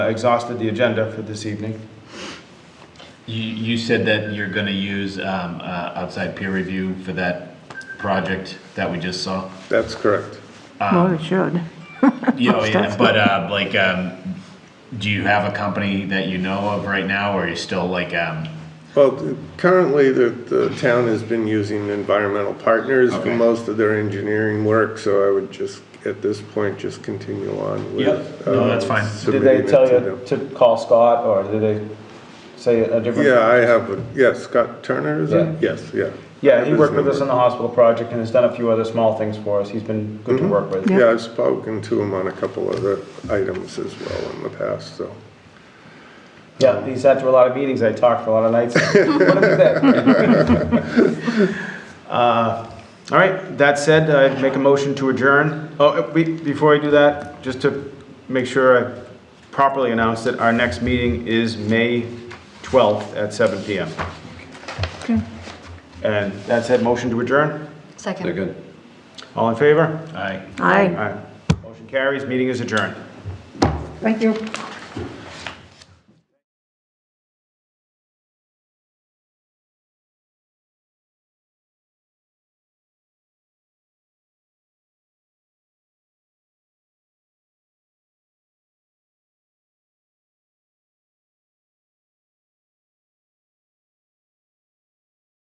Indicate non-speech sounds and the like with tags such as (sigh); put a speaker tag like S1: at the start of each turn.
S1: exhausted the agenda for this evening.
S2: You, you said that you're gonna use, um, uh, outside peer review for that project that we just saw?
S1: That's correct.
S3: Well, it should.
S2: Yeah, oh, yeah, but, uh, like, um, do you have a company that you know of right now, or are you still like, um,
S4: Well, th- currently, the, the town has been using environmental partners for
S2: Okay.
S4: most of their engineering work, so I would just, at this point, just continue on with.
S1: Yep.
S2: No, that's
S4: um,
S2: fine. Did
S1: Did
S4: submitting
S1: they
S4: it
S1: tell
S4: to
S1: you
S4: them.
S1: to call Scott, or did they say a different?
S4: Yeah, I have, a- yeah, Scott Turner, is
S1: Yeah.
S4: it? Yes, yeah. I
S1: Yeah,
S4: have
S1: he
S4: his
S1: worked with us
S4: number.
S1: on the hospital project and has done a few other small things for us. He's been good
S4: Mm-hmm.
S1: to work with.
S3: Yeah.
S4: Yeah, I've spoken to him on a couple other items as well in the past, so.
S1: Yeah, he sat through a lot of meetings, I talked for a lot of nights. (laughs) What about that? Uh, All right, that said, I'd make a motion to adjourn. Oh, uh, we- before I do that, just to make sure I properly announce that our next meeting is May 12th at seven PM.
S3: Okay.
S1: And that said, motion to adjourn,
S5: Second.
S1: all in favor?
S2: I?
S3: Aye.
S1: All right, motion carries, meeting is adjourned.
S3: Thank you.